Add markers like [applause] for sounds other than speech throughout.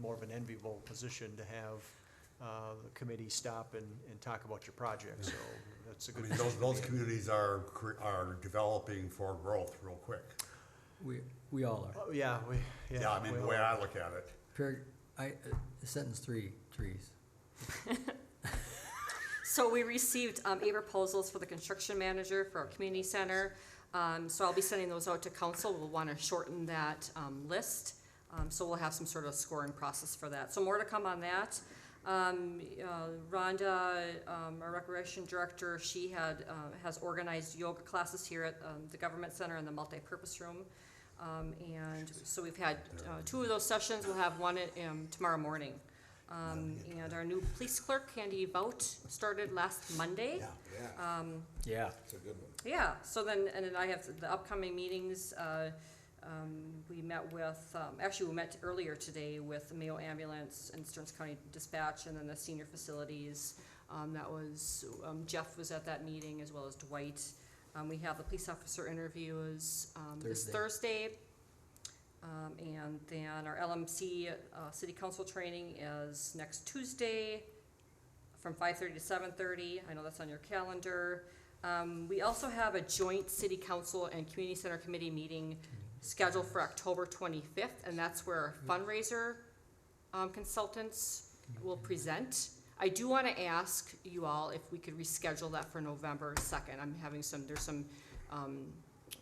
more of an enviable position to have uh, the committee stop and, and talk about your project, so that's a I good. mean, those, position to those be in. communities are, cre- are developing for growth real quick. We, we all are. Oh, Yeah, we, yeah. Yeah, I mean, the well, way I look at it. Par- I, uh, sentence three, trees. So we received um, eight proposals for the construction manager for our community center. Um, So I'll be sending those out to council. We'll want to shorten that um, list. Um, So we'll have some sort of scoring process for that. So more to come on that. Um, uh, Rhonda, um, our recreation director, she had, uh, has organized yoga classes here at um, the government center in the multipurpose room. Um, And so we've had uh, two of those sessions. We'll have one um, tomorrow morning. Um, and our new police clerk, Candy Vout, started last Monday. yeah. Yeah. It's a good one. Yeah, so then, and then I have the upcoming meetings, uh, um, we met with, um, actually, we met earlier today with Mayo Ambulance and Stearns County Dispatch, and then the senior facilities. Um, that was, um, Jeff was at that meeting, as well as Dwight. Um, we have the police officer interviews, um, this Thursday. Um, and then our LMC, uh, city council training is next Tuesday from five-thirty to seven-thirty, I know that's on your calendar. Um, we also have a joint city council and community center committee meeting scheduled for October twenty-fifth, and that's where our fundraiser, um, consultants will present. I do wanna ask you all if we could reschedule that for November second, I'm having some, there's some, um,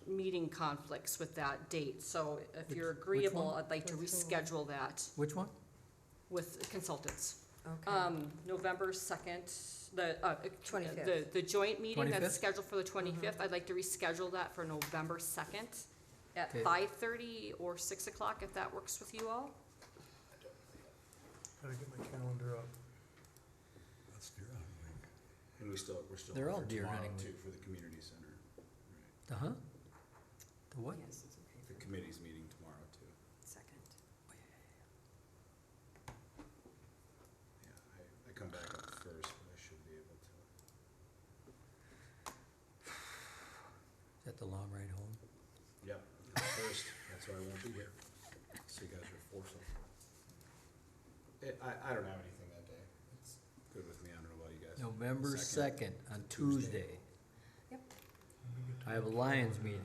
meeting conflicts with that date, so if Which- you're which one? agreeable, I'd like to Which one? reschedule that Which one? with consultants. Okay, Um, November second, the, uh, the, 25th. the joint meeting that's 25th? scheduled for the twenty-fifth, I'd like to reschedule that for November second at Okay. five-thirty or six o'clock, if that works with you all. Gotta get my calendar up. That's deer hunting. And we still, we're still. They're all on for deer tomorrow, hunting Too, for the community center, Uh-huh. The what? the committee's meeting tomorrow too. second. Yeah, I, I come back up first, but I should be able to. Is that the long ride home? Yeah, I'm first, that's why I won't be here. So you guys are forced. It, I, I don't have anything that day. It's good with me. I don't know about you guys. November Second. second, on Tuesday. Tuesday. Yep. I have a Lions meeting.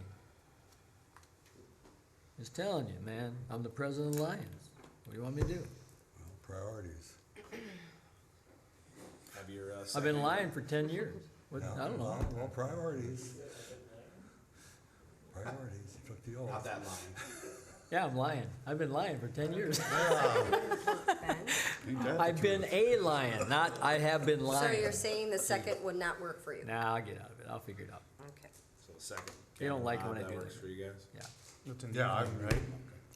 Just telling you, man, I'm the president of Lions. What do you want me to do? Well, Priorities. Have your, uh. I've been second- lying for ten years. What, Yeah, I don't know. well, Well, priorities. Priorities, you took the Not oath. that lying. Yeah, I'm lying. I've been lying for ten years. [laughs] Ben? I've been a lion, not I have been So lying. you're saying the second would not work for you? Nah, I'll get out of it. I'll figure it out. Okay. So the second. They don't like it Bob, when I that do works that. for you guys? Yeah. It's in the Yeah, I'm evening, right.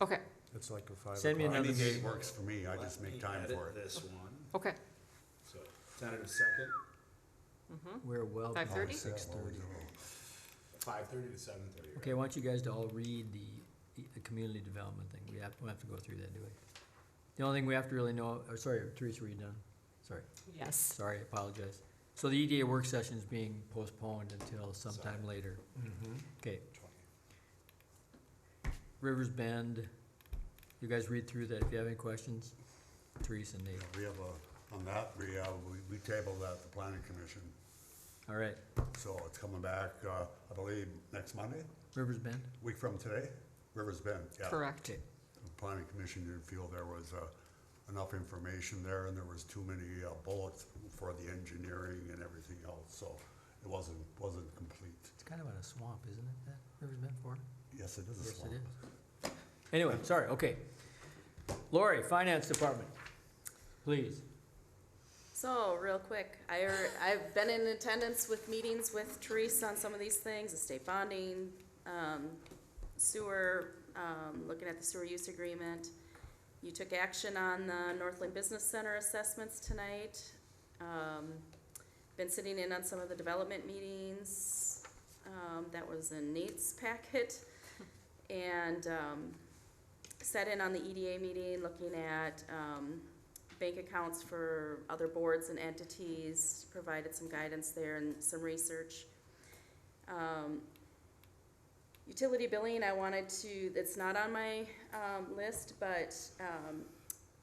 Okay, It's like a five Send me o'clock. another Any date meeting. works for me, I just Let make me time edit for it. This one, okay, so tentative second, We're well. Oh, Five thirty? Six thirty. five thirty to seven thirty. Okay, I want you guys to all read the, the community development thing. We have, we have to go through that, do we? The only thing we have to really know, oh, sorry, Teresa, were you done? Sorry, yes. sorry, I apologize. So the EDA work session is being postponed until sometime later. Okay, Rivers Bend, you guys read through that. If you have any questions, Teresa and Nate. We have a, on that, we, uh, we- we tabled that, at the planning commission, All right, so it's coming back, uh, I believe, next Monday, Rivers Bend? week from today, Rivers Bend, yeah. Correct. Okay, The planning commission didn't feel there was, uh, enough information there, and there was too many uh, bullets for the engineering and everything else, so it wasn't, wasn't complete. it's kind of in a swamp, isn't it, that Rivers Bend for? Yes, it is a Yes, swamp. it is. Anyway, sorry, okay. Lori, Finance Department, please. So, real quick, I, er- I've been in attendance with meetings with Teresa on some of these things, estate bonding, um, sewer, um, looking at the sewer use agreement. You took action on the Northland Business Center assessments tonight. Um, been sitting in on some of the development meetings, um, that was in Nate's packet. And, um, sat in on the EDA meeting, looking at, um, bank accounts for other boards and entities, provided some guidance there and some research. Um, Utility billing, I wanted to, it's not on my um, list, but um,